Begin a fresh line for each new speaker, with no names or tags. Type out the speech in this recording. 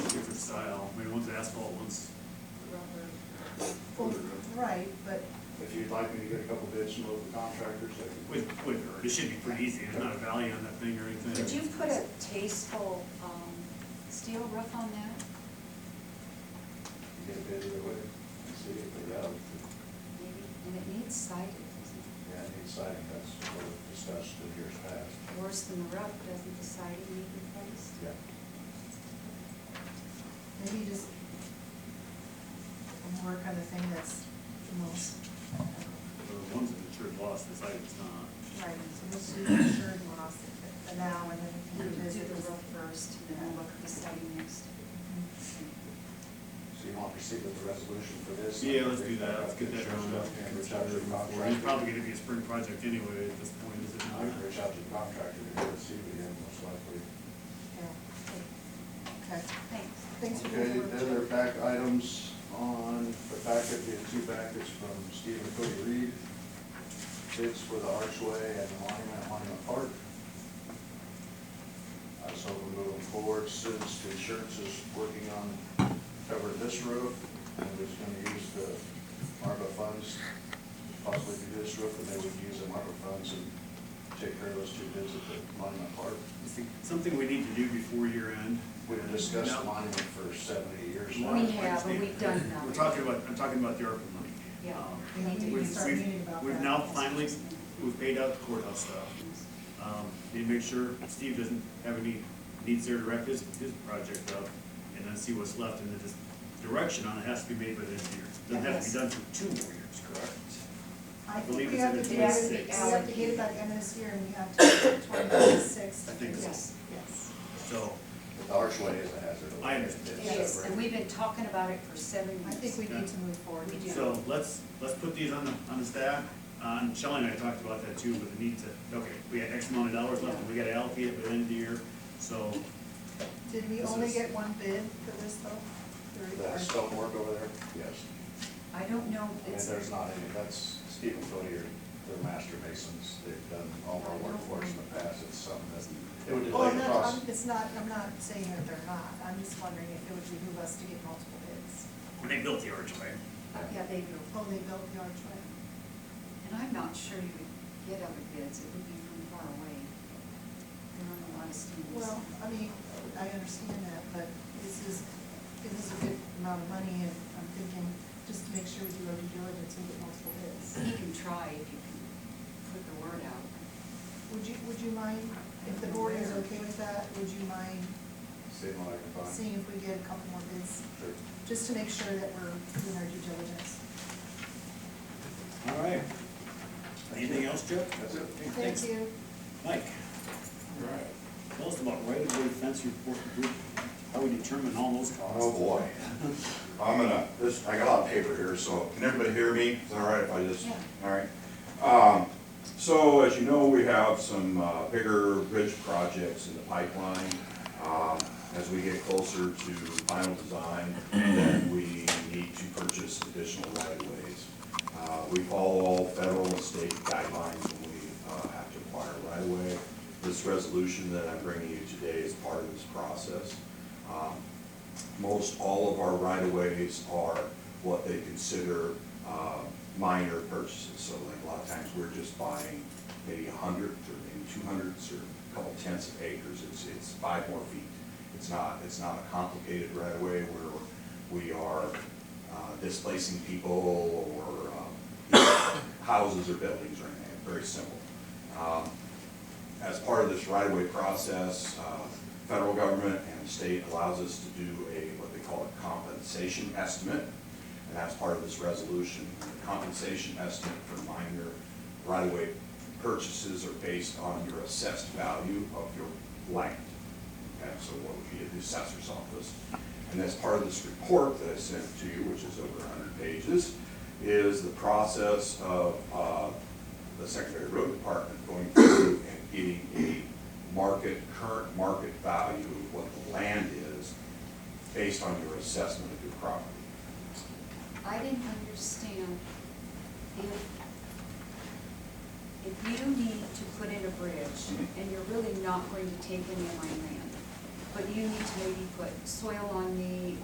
right, but
If you'd like me to get a couple bids from local contractors, that would
With, with, it should be pretty easy, there's not a value on that thing or anything.
Did you put a tasteful, um, steel roof on that?
get a bid either way, and see if they have,
Maybe, and it needs siding, doesn't
yeah, need siding, that's what we've discussed in years past.
it? Worse than the roof, doesn't the siding need replaced?
Yeah.
maybe just we'll work on the thing that's the most,
The ones that insured loss, the siding's not.
right, so let's do the insured loss for now, and then we
We
can
can do
revisit
the
this.
roof first, and then we'll look at the siding next.
So you want to proceed with the resolution for this?
Yeah, let's do that, let's get that done.
And reach out to the
It's
contractor.
probably gonna be a spring project anyway at this point, is it
I
not?
can reach out to the contractor to get a see with him, most likely.
Yeah, okay,
Thanks.
thanks for
Okay,
the
the
work.
other back items on the packet, the two packets from Stephen Cody Reed. Bids for the archway and the monument, at monument park. Uh, so we're moving forward since the insurance is working on covering this roof. And we're just gonna use the ARPA funds possibly to do this roof, and they would use the ARPA funds and take care of those two bids at the monument park.
It's Something we need to do before year end.
We've discussed
No.
monument for seventy years now.
We have, but we've done
We're
nothing.
talking about, I'm talking about the ARPA money.
Yeah.
Um,
We need to
we've-
start
we've-
meeting about
We've
that.
now finally, we've paid out the courthouse stuff. Um, Need to make sure Steve doesn't have any needs there to wrap his, his project up, and then see what's left, and then just direction on it has to be made by the end of the year. Doesn't have to be done for two more years, correct?
I
believe
think we
it's
have
in
to
the
get it,
26.
we have to get it by the end of this year, and we have to twenty-six.
I think so.
Yes, yes.
So,
But The archway is a hazard.
I understand.
It's
Yes,
separate.
and we've been talking about it for seven
I
years.
think we need to move forward.
We do.
so let's, let's put these on the, on the staff. Uh, and Shelley and I talked about that too, with the need to, okay, we had X amount of dollars left, and we gotta allocate it by the end of the year, so
Did we
This
only
is-
get one bid for this though? Or-
The stonework over there, yes.
I don't know,
I mean,
it's,
there's not any, that's Stephen Cody, the master masons, they've done all our work for us in the past, it's something that, it would
Well, Oh,
delay
I'm
the
not, I'm,
process.
it's not, I'm not saying that they're not, I'm just wondering if it would behoove us to get multiple bids.
when they built the archway.
yeah, they do.
Oh, they built the archway.
And I'm not sure you would get other bids, it would be from far away. There aren't a lot of students.
Well, I mean, I understand that, but this is, this is a good amount of money, and I'm thinking, just to make sure we do our due diligence and get multiple bids.
You can try if you can put the word out.
Would you, would you mind, if the board is okay with that, would you mind
See what I can find.
seeing if we get a couple more bids?
Sure.
Just to make sure that we're doing our due diligence.
All right. Anything else, Joe?
That's it.
Okay,
Thank
thanks.
you.
Mike,
All right.
tell us about right-of-way fence report group, how we determine all those costs.
Oh, boy. I'm gonna, this, I got a lot of paper here, so can everybody hear me? Is it all right if I just?
Yeah.
All right. Um, so as you know, we have some, uh, bigger bridge projects in the pipeline. Um, as we get closer to final design, then we need to purchase additional right-of-ways. Uh, we follow all federal and state guidelines when we, uh, have to acquire right-of-way. This resolution that I'm bringing you today is part of this process. Um, most all of our right-of-ways are what they consider uh, minor purchases. So like a lot of times, we're just buying maybe a hundredth or maybe two hundredths or a couple tenths of acres. It's, it's five more feet. It's not, it's not a complicated right-of-way where we are uh, displacing people or um, houses or buildings or anything. Very simple. Um, as part of this right-of-way process, uh, federal government and state allows us to do a, what they call a compensation estimate, and that's part of this resolution. The Compensation estimate for minor right-of-way purchases are based on your assessed value of your land. Okay, so what would be at the assessor's office? And as part of this report that I sent to you, which is over hundred pages, is the process of, uh, the Secretary of Road Department going through and getting a market, current market value of what the land is based on your assessment of your property.
I didn't understand if, if you need to put in a bridge and you're really not going to take any of my land, but you need to maybe put soil on